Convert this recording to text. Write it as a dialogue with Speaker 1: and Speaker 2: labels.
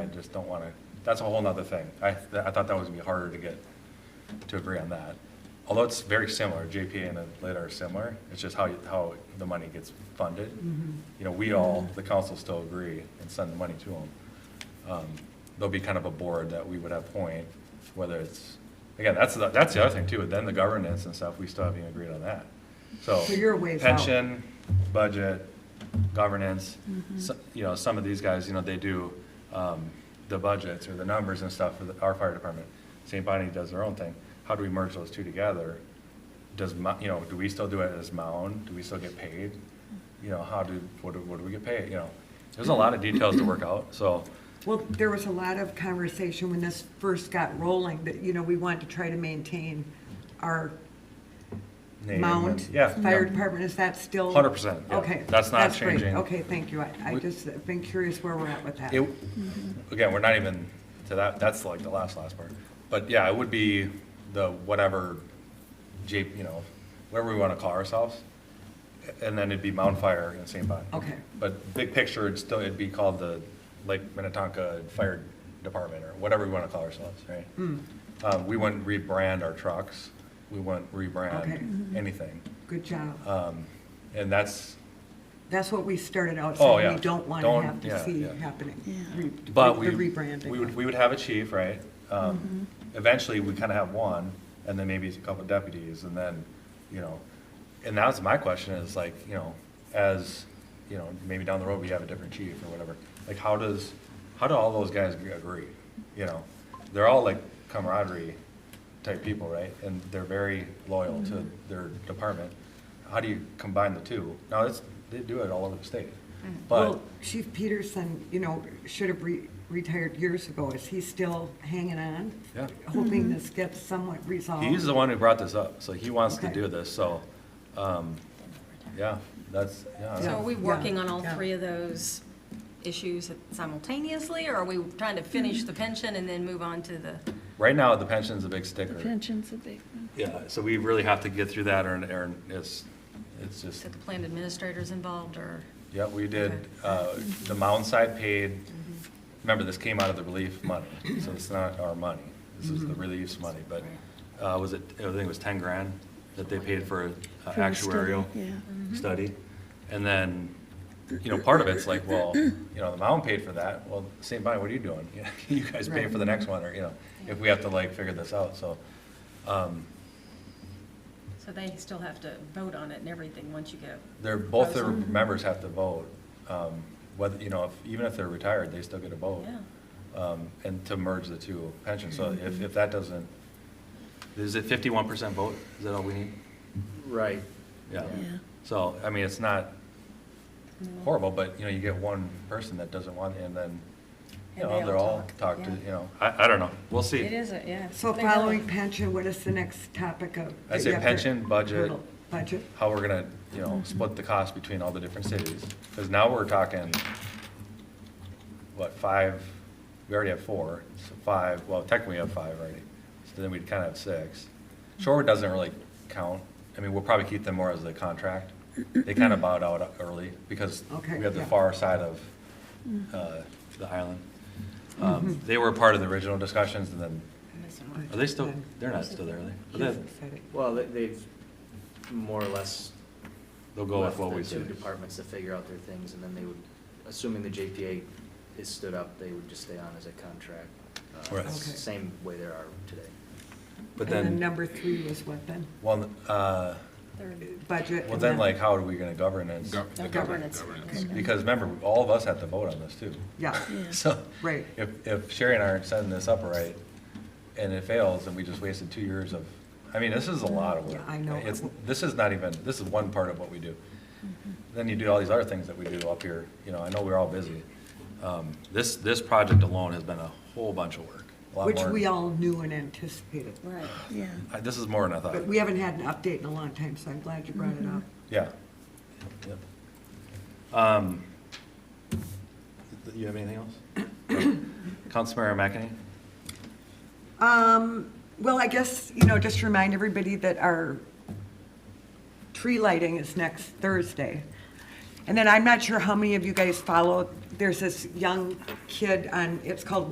Speaker 1: I just don't want to, that's a whole nother thing. I, I thought that was gonna be harder to get, to agree on that. Although it's very similar, JPA and LIT are similar, it's just how, you- how the money gets funded.
Speaker 2: Mm-hmm.
Speaker 1: You know, we all, the council still agree and send the money to them. Um, There'll be kind of a board that we would appoint, whether it's, again, that's, the- that's the other thing too, then the governance and stuff, we still haven't even agreed on that. So.
Speaker 2: So you're a ways out.
Speaker 1: Pension, budget, governance,
Speaker 2: Mm-hmm.
Speaker 1: so- you know, some of these guys, you know, they do um, the budgets or the numbers and stuff for the- our fire department. St. Bonnie does their own thing. How do we merge those two together? Does, Mo- you know, do we still do it as Mound? Do we still get paid? You know, how do, what do, what do we get paid, you know? There's a lot of details to work out, so,
Speaker 2: Well, there was a lot of conversation when this first got rolling, that, you know, we want to try to maintain our
Speaker 1: name and,
Speaker 2: mount.
Speaker 1: yeah.
Speaker 2: Fire
Speaker 1: yeah.
Speaker 2: department, is that still?
Speaker 1: 100%, yeah.
Speaker 2: Okay.
Speaker 1: That's not
Speaker 2: great.
Speaker 1: changing.
Speaker 2: Okay, thank you. I, I
Speaker 1: We-
Speaker 2: just have been curious where we're at with that.
Speaker 1: It, again, we're not even to that, that's like the last, last part. But yeah, it would be the whatever J, you know, whatever we want to call ourselves. And then it'd be Mount Fire and St. Bonnie.
Speaker 2: Okay.
Speaker 1: But big picture, it'd still, it'd be called the Lake Minnetonka Fire Department or whatever we want to call ourselves, right?
Speaker 2: Hmm.
Speaker 1: Um, we wouldn't rebrand our trucks. We wouldn't
Speaker 2: Okay.
Speaker 1: rebrand anything.
Speaker 2: Good job.
Speaker 1: Um, and that's,
Speaker 2: That's what we started out
Speaker 1: Oh,
Speaker 2: saying.
Speaker 1: yeah.
Speaker 2: We don't want to
Speaker 1: Don't-
Speaker 2: have
Speaker 1: yeah,
Speaker 2: to see
Speaker 1: yeah.
Speaker 2: happening.
Speaker 3: Yeah.
Speaker 2: Re-
Speaker 1: But
Speaker 2: the
Speaker 1: we, we would,
Speaker 2: rebranding. Mm-hmm.
Speaker 1: we would have a chief, right? Um, Eventually, we kind of have one, and then maybe a couple deputies, and then, you know, and that was my question is like, you know, as, you know, maybe down the road, we have a different chief or whatever. Like, how does, how do all those guys agree? You know, they're all like camaraderie type people, right? And they're very loyal to
Speaker 2: Mm-hmm.
Speaker 1: their department. How do you combine the two? Now, it's, they do it all over the state, but.
Speaker 2: Mm. Well, Chief Peterson, you know, should have re- retired years ago. Is he still hanging on?
Speaker 1: Yeah.
Speaker 2: Hoping this gets somewhat resolved?
Speaker 1: He's the one who brought this up, so he wants to
Speaker 2: Okay.
Speaker 1: do this, so, um, yeah, that's,
Speaker 2: Yeah.
Speaker 3: So
Speaker 1: yeah.
Speaker 3: are we working
Speaker 2: yeah,
Speaker 3: on all
Speaker 2: yeah.
Speaker 3: three of those issues simultaneously, or are we trying to
Speaker 2: Mm-hmm.
Speaker 3: finish the pension and then move on to the?
Speaker 1: Right now, the pension's a big
Speaker 4: The
Speaker 1: sticker.
Speaker 4: pension's a big one.
Speaker 1: Yeah, so we really have to get through that, or, or it's, it's just,
Speaker 3: Get the plan administrators involved, or?
Speaker 1: yeah, we did, uh, the mound side paid,
Speaker 4: Mm-hmm.
Speaker 1: remember, this came out of the relief money, so it's not our money. This is
Speaker 4: Mm-hmm.
Speaker 1: the relief's money, but, uh, was it, I think it was ten grand that they paid for uh,
Speaker 4: For the study,
Speaker 1: actuarial.
Speaker 4: Yeah.
Speaker 1: study. And then, you know, part of it's like, well, you know, the mound paid for that, well, St. Bonnie, what are you doing? You guys pay for the next one, or, you know, if we have to like figure this out, so. um,
Speaker 3: So they still have to vote on it and everything once you go.
Speaker 1: They're, both their members have to vote, um, whether, you know, if- even if they're retired, they still get a vote.
Speaker 3: Yeah.
Speaker 1: Um, And to merge the two pensions, so if, if that doesn't, is it fifty-one percent vote? Is that all we need?
Speaker 5: Right.
Speaker 1: Yeah.
Speaker 4: Yeah.
Speaker 1: So, I mean, it's not horrible, but, you know, you get one person that doesn't want, it, and then, you
Speaker 3: And
Speaker 1: know,
Speaker 3: they
Speaker 1: they're
Speaker 3: all
Speaker 1: all
Speaker 3: talk,
Speaker 1: talked to,
Speaker 3: yeah.
Speaker 1: you know, I, I don't know, we'll see.
Speaker 3: It is, a- yeah.
Speaker 2: So
Speaker 3: They really-
Speaker 2: following pension, what is the next topic of?
Speaker 1: I say
Speaker 2: the effort?
Speaker 1: pension, budget.
Speaker 2: Hurdle. Budget,
Speaker 1: How we're gonna, you know, split the cost between all the different cities, because now we're talking, what, five, we already have four, so five, well, technically we have five already, so then we'd kind of have six. Shorewood doesn't really count, I mean, we'll probably keep them more as a contract, they kind of bowed out early, because
Speaker 2: Okay,
Speaker 1: we have the
Speaker 2: yeah.
Speaker 1: far side of,
Speaker 4: mm,
Speaker 1: uh, the island. Um, They were part of the original discussions, and then,
Speaker 3: I'm missing one.
Speaker 1: are they still, they're not still there, are they? But
Speaker 2: he's
Speaker 1: they-
Speaker 2: excited.
Speaker 5: Well, they- they've more or less.
Speaker 1: They'll go with
Speaker 5: left
Speaker 1: what
Speaker 5: the
Speaker 1: we
Speaker 5: two
Speaker 1: say.
Speaker 5: Departments to figure out their things, and then they would, assuming the JPA is stood up, they would just stay on as a contract. uh,
Speaker 1: Right. Okay.
Speaker 5: Same way they are today.
Speaker 1: But
Speaker 2: And then
Speaker 1: then,
Speaker 2: number three was what then?
Speaker 1: well, uh,
Speaker 3: Third.
Speaker 2: Budget.
Speaker 1: well
Speaker 2: and
Speaker 1: then like, how are we gonna governance?
Speaker 6: Gov- the
Speaker 3: Governance.
Speaker 1: Because remember, all of us have to vote on this too.
Speaker 2: Yeah,
Speaker 4: Yeah.
Speaker 1: So
Speaker 2: right.
Speaker 1: if, if Sherry and I aren't setting this up right and it fails, then we just wasted two years of, I mean, this is a lot of work.
Speaker 2: Yeah, I know.
Speaker 1: It's, this is not even, this is one part of what we do.
Speaker 2: Mm-hmm.
Speaker 1: Then you do all these other things that we do up here, you know, I know we're all busy. Um, This, this project alone has been a whole bunch of work, a lot
Speaker 2: Which
Speaker 1: more.
Speaker 2: we all knew and anticipated.
Speaker 3: Right.
Speaker 4: Yeah.
Speaker 1: I- This is more than I thought.
Speaker 2: But we haven't had an update in a long time, so I'm glad you brought it up.
Speaker 1: Yeah. Yep. Um, th- You have anything else? Councilmember McEnany?
Speaker 2: Um, well, I guess, you know, just remind everybody that our tree lighting is next Thursday. And then I'm not sure how many of you guys follow, there's this young kid on, it's called